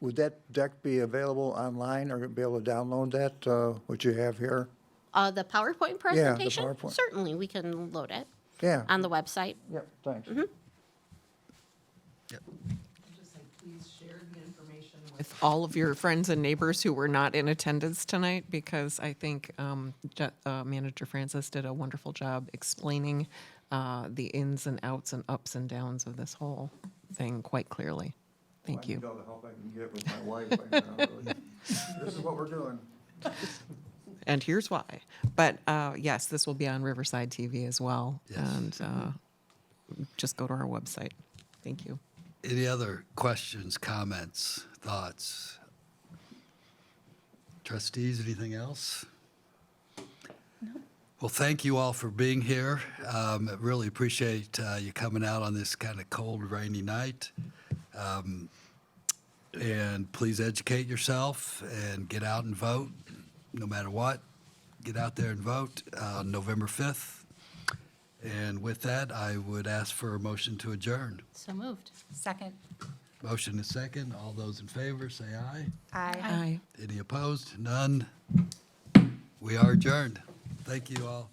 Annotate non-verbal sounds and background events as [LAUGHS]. Would that deck be available online or be able to download that, uh, what you have here? Uh, the Yeah, PowerPoint the presentation? PowerPoint. Certainly, we can load it Yeah, on the website. yeah, thanks. Just say, please share the information with all of your friends and neighbors who were not in attendance tonight, because I think um, Je- uh, Manager Francis did a wonderful job explaining uh, the ins and outs and ups and downs of this whole thing quite clearly. Thank you. all the help I can get with my wife right now. really. [LAUGHS] This is what we're doing. And here's why. But uh, yes, this will be on Riverside TV as well. And uh, just go to our website. Thank you. Any other questions, comments, thoughts? Trustees, anything else? Well, thank you all for being here. Um, I Really appreciate uh, you coming out on this kind of cold, rainy night. Um, And please educate yourself and get out and vote, no matter what. Get out there and vote uh, November 5th. And with that, I would ask for a motion to adjourn. So moved. Second. Motion is second. All those in favor, say aye. Aye. Aye. Any opposed? None. We are adjourned. Thank you all.